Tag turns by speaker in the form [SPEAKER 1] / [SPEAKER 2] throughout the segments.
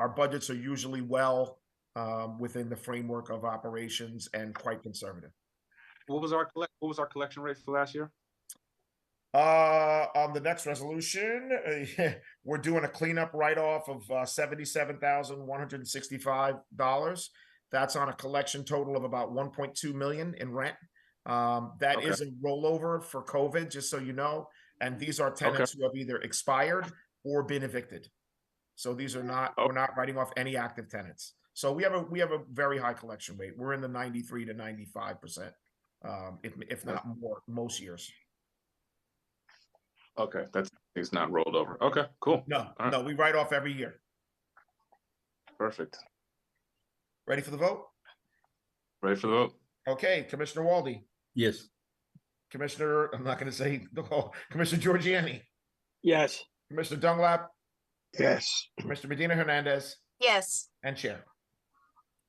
[SPEAKER 1] Our budgets are usually well um, within the framework of operations and quite conservative.
[SPEAKER 2] What was our collect, what was our collection rate for last year?
[SPEAKER 1] Uh, on the next resolution, uh, we're doing a cleanup write-off of uh, seventy-seven thousand one hundred and sixty-five dollars. That's on a collection total of about one point two million in rent. Um, that
[SPEAKER 2] Okay.
[SPEAKER 1] is a rollover for COVID, just so you know. And these are tenants who have either expired or been evicted. So these are not, we're not writing off any active tenants. So we have a, we have a very high collection rate. We're in the ninety-three to ninety-five percent. Um, if, if not more, most years.
[SPEAKER 2] Okay, that's, it's not rolled over. Okay, cool,
[SPEAKER 1] No,
[SPEAKER 2] right.
[SPEAKER 1] no, we write off every year.
[SPEAKER 2] perfect.
[SPEAKER 1] Ready for the vote?
[SPEAKER 2] Ready for the vote?
[SPEAKER 1] Okay, Commissioner Walde,
[SPEAKER 3] Yes.
[SPEAKER 1] Commissioner, I'm not gonna say, the whole- Commissioner Giorgiani,
[SPEAKER 4] Yes.
[SPEAKER 1] Commissioner Dunglap,
[SPEAKER 4] Yes.
[SPEAKER 1] Mr. Medina Hernandez,
[SPEAKER 5] Yes,
[SPEAKER 1] and Chair.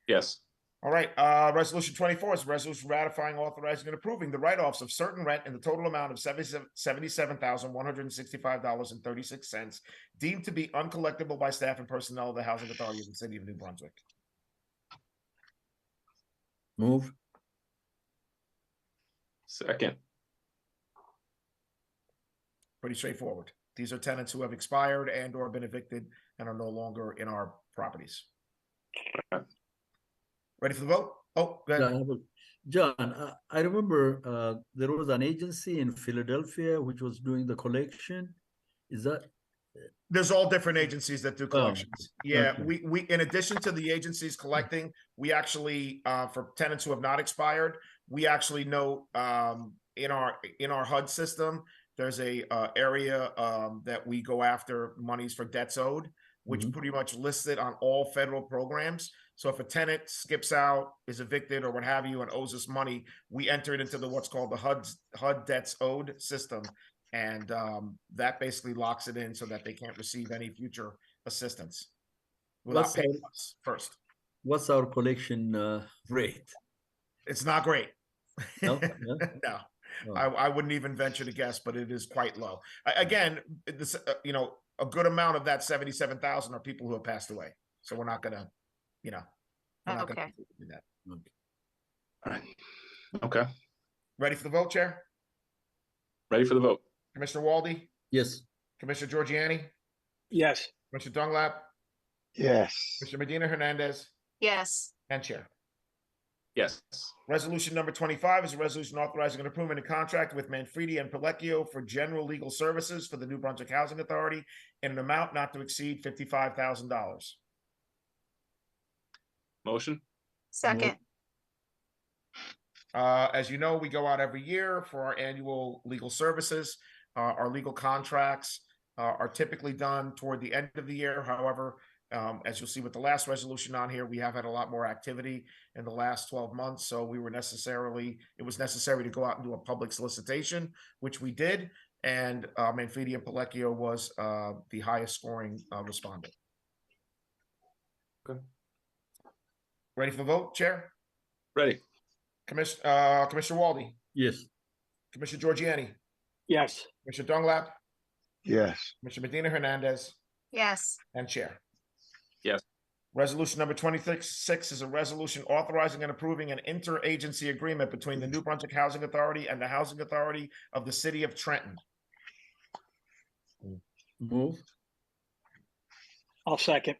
[SPEAKER 2] Yes,
[SPEAKER 1] All right, uh, resolution twenty-four is a resolution ratifying, authorizing, and approving the write-offs of certain rent in the total amount of seventy-seven, seventy-seven thousand, one hundred and sixty-five dollars and thirty-six cents deemed to be uncollectible by staff and personnel of the Housing Authority of the City of New Brunswick.
[SPEAKER 3] Move.
[SPEAKER 2] second,
[SPEAKER 1] Pretty straightforward. These are tenants who have expired and or been evicted and are no longer in our properties.
[SPEAKER 2] Okay.
[SPEAKER 1] Ready for the vote? Oh, go ahead.
[SPEAKER 3] John, I have a- John, I- I remember uh, there was an agency in Philadelphia which was doing the collection. Is that,
[SPEAKER 1] There's all different agencies that do collections. Yeah,
[SPEAKER 3] okay.
[SPEAKER 1] we, we, in addition to the agencies collecting, we actually, uh, for tenants who have not expired, we actually know, um, in our, in our HUD system, there's a, uh, area, um, that we go after monies for debts owed, which
[SPEAKER 3] Mhm.
[SPEAKER 1] pretty much lists it on all federal programs. So if a tenant skips out, is evicted or what have you and owes us money, we enter it into the, what's called the HUD, HUD debts owed system. And um, that basically locks it in so that they can't receive any future assistance without
[SPEAKER 3] Let's say-
[SPEAKER 1] paying us first.
[SPEAKER 3] what's our collection uh, rate?
[SPEAKER 1] It's not great.
[SPEAKER 3] No? No? Oh,
[SPEAKER 1] No,
[SPEAKER 3] No.
[SPEAKER 1] I, I wouldn't even venture to guess, but it is quite low. A- Again, it- this, uh, you know, a good amount of that seventy-seven thousand are people who have passed away. So we're not gonna, you know. we're not gonna
[SPEAKER 5] Okay.
[SPEAKER 1] do that.
[SPEAKER 2] okay,
[SPEAKER 1] Ready for the vote, Chair?
[SPEAKER 2] ready for the vote?
[SPEAKER 1] Commissioner Walde,
[SPEAKER 3] Yes.
[SPEAKER 1] Commissioner Giorgiani,
[SPEAKER 4] Yes.
[SPEAKER 1] Commissioner Dunglap,
[SPEAKER 4] Yes.
[SPEAKER 1] Mr. Medina Hernandez,
[SPEAKER 5] yes,
[SPEAKER 1] and Chair.
[SPEAKER 2] Yes,
[SPEAKER 1] Resolution number twenty-five is a resolution authorizing an improvement in contract with Manfredi and Pellecchio for general legal services for the New Brunswick Housing Authority in an amount not to exceed fifty-five thousand dollars.
[SPEAKER 2] motion,
[SPEAKER 5] second,
[SPEAKER 1] Uh, as you know, we go out every year for our annual legal services. Uh, our legal contracts uh, are typically done toward the end of the year. However, um, as you'll see with the last resolution on here, we have had a lot more activity in the last 12 months. So we were necessarily, it was necessary to go out and do a public solicitation, which we did. And uh, Manfredi and Pellecchio was uh, the highest scoring uh, respondent.
[SPEAKER 2] Okay.
[SPEAKER 1] Ready for the vote, Chair?
[SPEAKER 2] ready,
[SPEAKER 1] Commiss- uh, Commissioner Walde?
[SPEAKER 3] Yes.
[SPEAKER 1] Commissioner Giorgiani,
[SPEAKER 4] Yes.
[SPEAKER 1] Commissioner Dunglap,
[SPEAKER 4] Yes.
[SPEAKER 1] Commissioner Medina Hernandez,
[SPEAKER 5] yes,
[SPEAKER 1] and Chair.
[SPEAKER 2] Yes.
[SPEAKER 1] Resolution number twenty-six six is a resolution authorizing and approving an interagency agreement between the New Brunswick Housing Authority and the Housing Authority of the City of Trenton.
[SPEAKER 3] Move.
[SPEAKER 4] I'll second.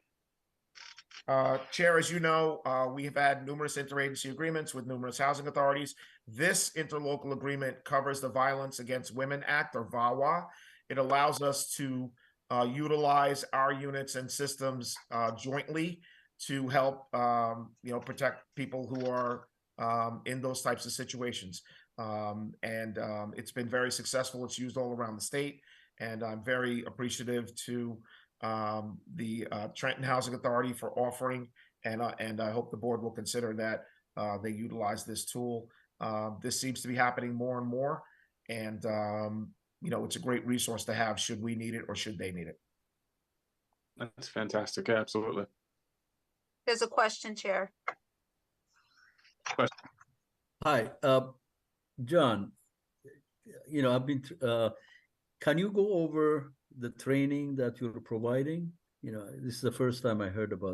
[SPEAKER 1] Uh, Chair, as you know, uh, we have had numerous interagency agreements with numerous housing authorities. This interlocal agreement covers the Violence Against Women Act or VAWA. It allows us to uh, utilize our units and systems uh, jointly to help, um, you know, protect people who are um, in those types of situations. Um, and um, it's been very successful. It's used all around the state. And I'm very appreciative to um, the uh, Trenton Housing Authority for offering, and uh, and I hope the board will consider that uh, they utilize this tool. Um, this seems to be happening more and more, and um, you know it's a great resource to have should we need it or should they need it.
[SPEAKER 2] that's fantastic, absolutely.
[SPEAKER 5] there's a question, Chair.
[SPEAKER 3] Hi, uh, John, you know, I've been, thr- uh, can you go over the training that you're providing? you know, this is the first time I heard about